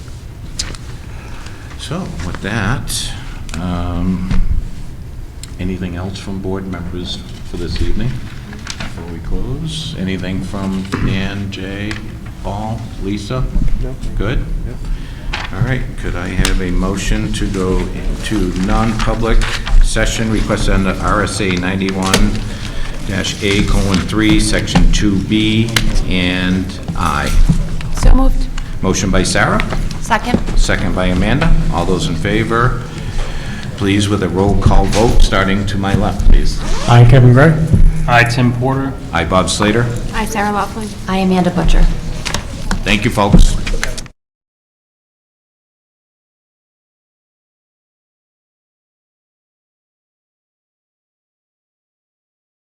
So with that, um, anything else from board members for this evening before we close? Anything from Dan, Jay, Paul, Lisa? No. Good? Yep. All right, could I have a motion to go into non-public session request under RSA 91-A colon 3, section 2B and I? So moved. Motion by Sarah? Second? Second by Amanda. All those in favor, please with a roll call vote, starting to my left, please. Hi, Kevin Gray. Hi, Tim Porter. I, Bob Slater. Aye, Sarah Laughlin. I, Amanda Butcher. Thank you, folks.